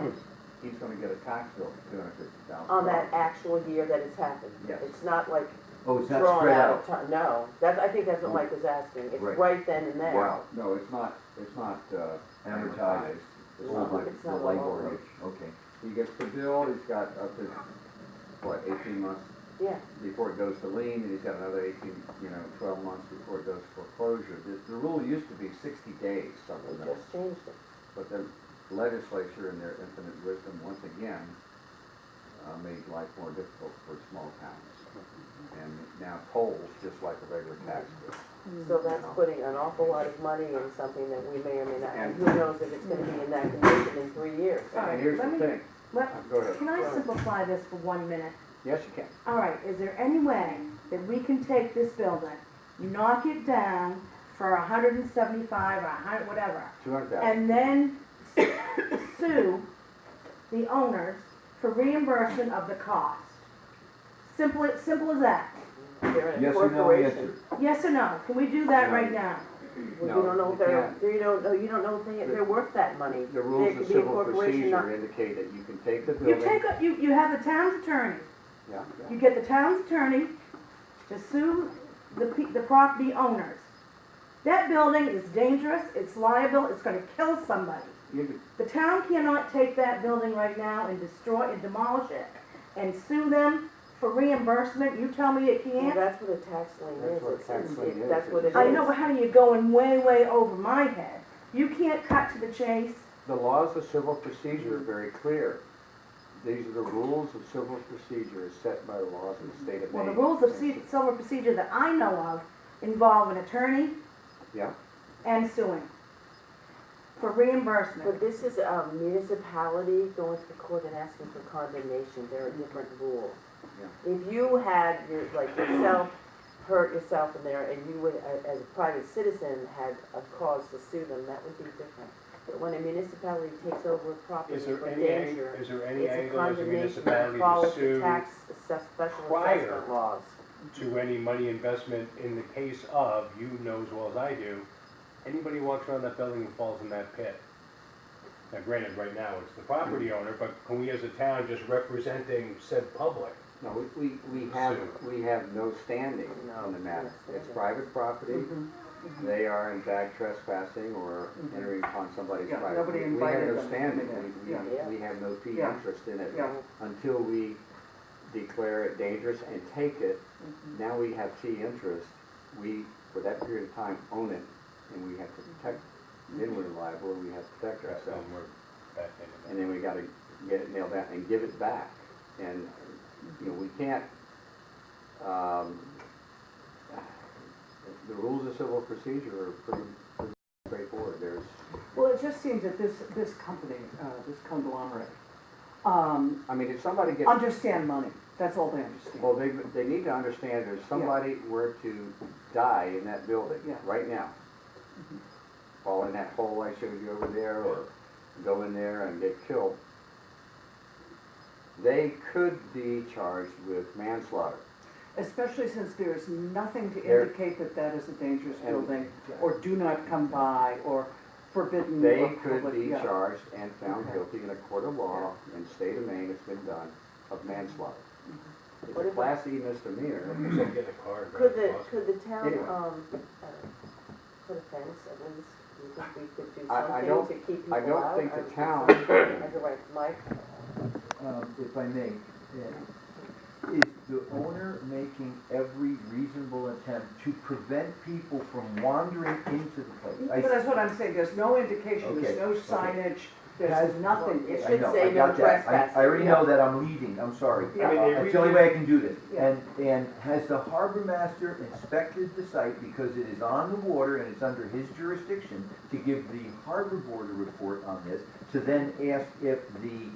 his, he's gonna get a tax bill for two hundred fifty thousand. on Oh, that actual year that it's happened. Yes. It's not like Oh, it's not drawn spread out of out. time, no, that's, I think that's what Mike was asking, it's Right. right then and there. Wow, no, it's not, it's not, uh. Advertised. It's Oh, not but like, It's the not labor long. rate, okay. he gets the bill, he's got up to, what, eighteen months Yeah, before it goes to lien, and he's got another eighteen, you know, twelve months before it goes to foreclosure. The, the rule used to be sixty days, we something like that. just changed it. But the legislature in their infinite wisdom, once again, uh, made life more difficult for small towns. And now tolls, just like a regular tax bill. Hmm. So that's putting an awful lot of money in something that we may or may not, And- who knows if it's gonna be in that condition in three years. And Sorry, here's let the me- thing, Uh, Let- go ahead. Can I simplify this for one minute? Yes, you can. All right, is there any way that we can take this building, knock it down for a hundred and seventy-five or a hundred, whatever, Two hundred thousand. and then sue the owners for reimbursement of the cost? Simple, simple as that. They're in a Yes or no, yes corporation. or? Yes or no? Can we do that right now? Well, No, You don't know you if they're, can't. you don't, know- you don't know if they, The- they're worth that money. The rules of could be a civil corporation, not- procedure indicate that you can take the You building. take, a- you, you have the town's attorney. Yeah, yeah. You get the town's attorney to sue the, pe- the property owners. That building is dangerous, it's liable, it's gonna kill somebody. You could- The town cannot take that building right now and destroy and demolish it and sue them for reimbursement, you tell me it Well, can't? that's what a tax lien That's is, what a it's, tax it's- lien it- is. that's what it is. I know, but honey, you're going way, way over my head. You can't cut to the chase. The laws of civil procedure are very clear. These are the rules of civil procedure as set by the laws of the state of Well, Maine. the rules of ci- civil procedure that I know of involve an attorney Yeah. and suing for reimbursement. But this is a municipality going to the court and asking for condemnation, there are different rules. If you had, your- like yourself, hurt yourself in there, and you would, a- as a private citizen, had a cause to sue them, that would be different. But when a municipality takes over a property Is there for any, ang- danger, is there any it's a angle as a condemnation that municipality follows to the sue tax, assess- special prior assessment laws. to any money investment in the case of, you know as well as I do, anybody walks around that building and falls in that pit? Now granted, right now it's the property owner, but can we as a town just representing said public? No, we- we, we have, we have no standing on the matter. It's private property. Mm-hmm, They are in fact trespassing or entering upon somebody's Yeah, private. nobody We- invited We them have no to standing. come in. We- Yeah. We, we have no fee Yeah. interest in it. Yeah. Until we declare it dangerous and take it, Mm-hmm. now we have fee interest. We, for that period of time, own it and we have to protect, it. then we're liable and we have to protect That's ourselves. when we're back into And that. then we gotta get it nailed down and give it back. And, you know, we can't, um, the rules of civil procedure are pretty, pretty straightforward. There's, Well, it just seems that this, this company, uh, this conglomerate, um, I mean, if somebody gets, understand money, that's all they understand. well, they, they need to understand that if somebody were to die in that building, Yeah. right now, fall in that hole I showed you over there, or go in there and get killed, they could be charged with manslaughter. Especially since there is nothing to There- indicate that that is a dangerous And- building, or do not come by, or forbidden. They or could public- be yeah. charged and found Okay. guilty in a court of law in state of Maine, it's been done, of manslaughter. Mm-hmm. It's What a if- class E misdemeanor. Just Get a card. right? Could the, could the town, Anyway. um, uh, put a fence at least, you think we could do I- I don't- something to keep people I out? don't think would the think town, so. As a right, Mike? um, if I may, uh, is the owner making every reasonable attempt to prevent people from wandering into the place? I But that's what I'm saying, there's no indication, there's Okay, no okay. signage, Has- there's nothing. It It's- I should know, say I no got that. I- trespassing. I already know that I'm leading, I'm sorry. Yeah. I mean, they That's the only really- way I can do this. Yeah. And, and has the harbor master inspected the site because it is on the water and it's under his jurisdiction to give the harbor board a report on this, to then ask if the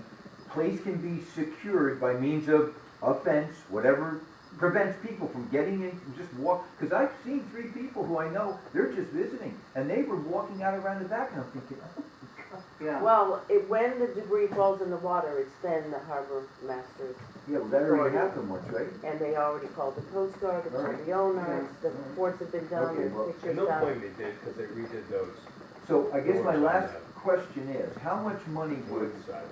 place can be secured by means of a fence, whatever prevents people from getting in, from just walk, because I've seen three people who I know, they're just visiting, and they were walking out around the back, and I'm thinking, oh, Yeah. Well, it, when the debris falls in the water, it's then the harbor masters, yeah, well, that already happened once, right? and they already called the coast guard, they called the Alright. owner, it's- the reports have been done, Okay, there's well, pictures And no done. blame they did, because they redid those So I guess my Doors on last that. question is, how much money would wood side.